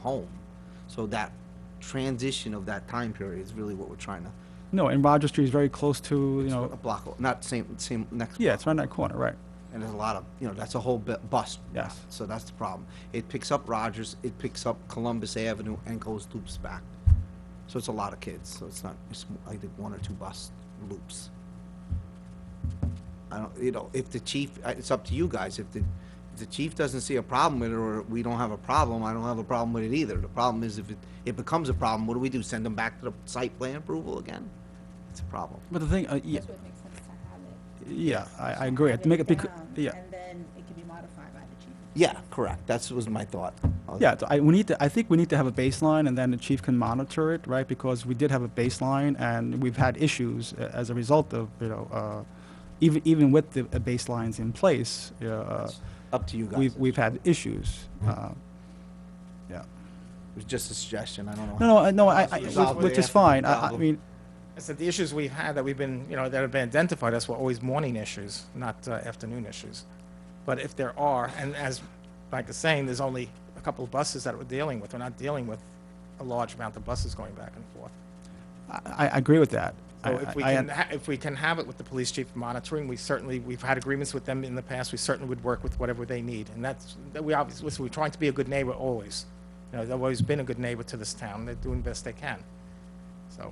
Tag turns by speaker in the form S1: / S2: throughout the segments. S1: home. So that transition of that time period is really what we're trying to,
S2: No, and Roger Street is very close to, you
S1: a
S2: know,
S1: block, o- not same, same, next.
S2: yeah, it's around that corner, right?
S1: And there's a lot of, you know, that's a whole bu- bus.
S2: Yes.
S1: So that's the problem. It picks up Rogers, it picks up Columbus Avenue and goes loops back. So it's a lot of kids, so it's not, it's m- I think one or two bus loops. I don't, you know, if the chief, I- it's up to you guys, if the, if the chief doesn't see a problem with it, or we don't have a problem, I don't have a problem with it either. The problem is if it, it becomes a problem, what do we do, send them back to the site plan approval again? It's a problem.
S2: But the thing, uh, yeah,
S3: That's what makes sense to have it.
S2: yeah, I, I agree.
S3: Have
S2: To make it, bec-
S3: down,
S2: yeah,
S3: And then it can be modified by the chief.
S1: Yeah, correct, that's was my thought. Uh,
S2: yeah, th- I, we need to, I think we need to have a baseline and then the chief can monitor it, right? Because we did have a baseline and we've had issues a- as a result of, you know, uh, even, even with the uh, baselines in place, you know, uh,
S1: Up to you guys.
S2: we've, we've had issues. uh, Yeah.
S1: It was just a suggestion, I don't know.
S2: No, no, I- no, I, I-
S1: Resolve it
S2: which is
S1: after
S2: fine.
S1: the
S2: I, I
S1: problem.
S2: mean,
S4: I said the issues we've had that we've been, you know, that have been identified as were always morning issues, not uh, afternoon issues. But if there are, and as Mike is saying, there's only a couple of buses that we're dealing with. We're not dealing with a large amount of buses going back and forth.
S2: I, I agree with that. I-
S4: So if we
S2: I- I-
S4: can, ha- if we can have it with the police chief monitoring, we certainly, we've had agreements with them in the past, we certainly would work with whatever they need. And that's, that we obviously, listen, we're trying to be a good neighbor always. You know, they've always been a good neighbor to this town, they're doing the best they can, so.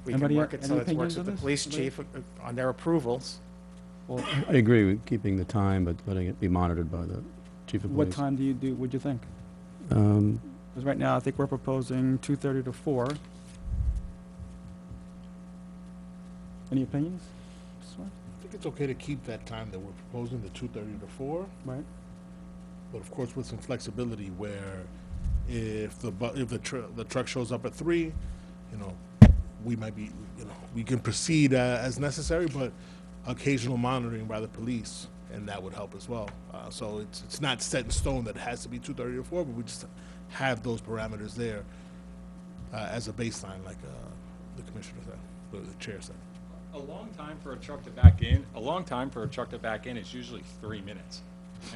S4: if We can
S2: Anybody-
S4: work it so
S2: any
S4: it works
S2: opinions
S4: with
S2: on
S4: the
S2: this?
S4: police chief uh, uh, on their approvals.
S2: well,
S5: I agree with keeping the time, but letting it be monitored by the chief of police.
S2: What time do you do, what'd you think?
S5: Um,
S2: Because right now, I think we're proposing 2:30 to 4. Any opinions? This one?
S6: I think it's okay to keep that time that we're proposing, the two thirty to four,
S2: Right?
S6: but of course with some flexibility where if the bu- if the tr- the truck shows up at three, you know, we might be, you know, we can proceed uh, as necessary, but occasional monitoring by the police and that would help as well. Uh, so it's it's not set in stone that it has to be two thirty to four, but we just have those parameters there uh, as a baseline, like uh, the commissioner said, the- the chair said.
S7: A long time for a truck to back in, a long time for a truck to back in is usually three minutes.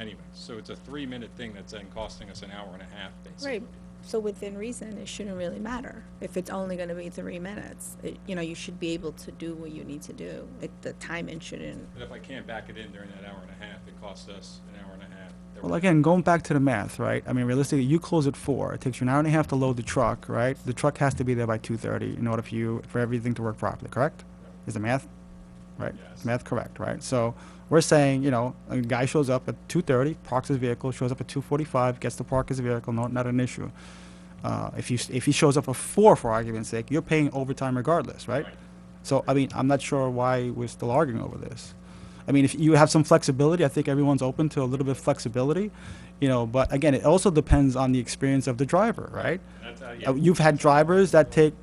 S7: Anyway, so it's a three-minute thing that's then costing us an hour and a half, basically.
S3: Right, so within reason, it shouldn't really matter. If it's only gonna be three minutes, it, you know, you should be able to do what you need to do. It, the timing shouldn't.
S7: But if I can't back it in during that hour and a half, it costs us an hour and a half. that
S2: Well,
S7: we're-
S2: again, going back to the math, right? I mean, realistically, you close at 4. It takes you an hour and a half to load the truck, right? The truck has to be there by 2:30 in order for you, for everything to work properly, correct? Is the math, right?
S7: Yes.
S2: Is Math correct, right? So we're saying, you know, a guy shows up at 2:30, parks his vehicle, shows up at 2:45, gets to park his vehicle, no, not an issue. Uh, if you if he shows up at four, for argument's sake, you're paying overtime regardless, right?
S7: Right.
S2: So I mean, I'm not sure why we're still arguing over this. I mean, if you have some flexibility, I think everyone's open to a little bit of flexibility, you know. But again, it also depends on the experience of the driver, right?
S7: That's, uh,
S2: Uh,
S7: yeah,
S2: You've had drivers that take,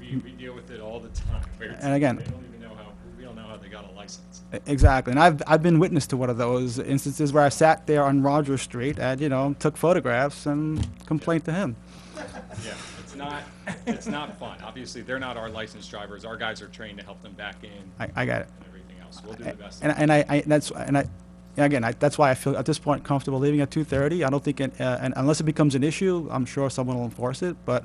S7: we, we deal with it all the time. where it's
S2: And again-
S7: like, They don't even know how, we don't know how they got a license.
S2: e, Exactly, and I've I've been witness to one of those instances where I sat there on Rogers Street and you know took photographs and complained to him.
S7: Yeah, it's not, it's not fun. Obviously, they're not our licensed drivers. Our guys are trained to help them back in and
S2: I, I got it.
S7: everything else. We'll do the best.
S2: And, and I, I, that's, and I, and again, I, that's why I feel at this point comfortable leaving at two thirty. I don't think, it, uh, and unless it becomes an issue, I'm sure someone will enforce it. But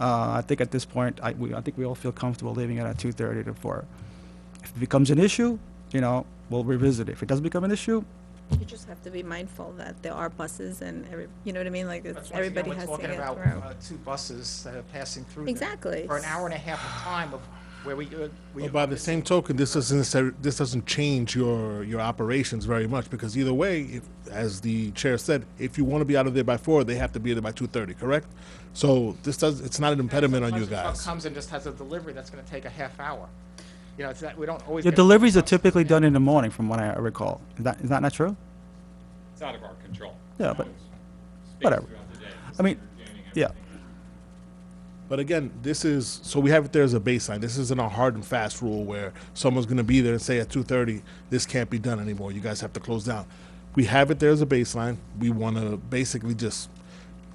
S2: uh, I think at this point, I, we, I think we all feel comfortable leaving it at two thirty to four. If it becomes an issue, you know, we'll revisit it. If it doesn't become an issue,
S3: You just have to be mindful that there are buses and every, you know what I mean, like,
S4: That's
S3: it's,
S4: once again,
S3: everybody
S4: we're
S3: has to
S4: talking
S3: get
S4: about,
S3: through.
S4: uh, Two buses that are passing through. there
S3: Exactly.
S4: For an hour and a half of time of where we, uh, we.
S6: But by the same token, this doesn't necessar- this doesn't change your your operations very much because either way, if, as the chair said, if you want to be out of there by four, they have to be there by two thirty, correct? So this does it's not an impediment on you
S4: Unless a truck
S6: guys.
S4: Comes and just has a delivery that's gonna take a half hour. You know, it's that, we don't always.
S2: your
S4: get-
S2: deliveries are typically done in the morning, from what I recall. Is that is that not true?
S7: It's out of our control.
S2: Yeah, but-
S7: It's spaced
S2: whatever.
S7: throughout the day,
S2: I mean,
S7: so you're jamming
S2: yeah.
S7: everything out.
S6: But again, this is so we have it there as a baseline. This isn't a hard and fast rule where someone's going to be there and say at two thirty, this can't be done anymore. You guys have to close down. We have it there as a baseline. We want to basically just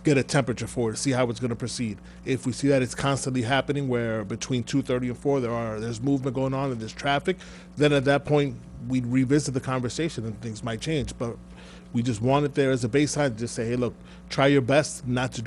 S6: get a temperature for it, see how it's going to proceed. If we see that it's constantly happening, where between two thirty and four there are there's movement going on and there's traffic, then at that point we revisit the conversation and things might change. But We just want it there as a baseline, to just say, hey, look, try your best not to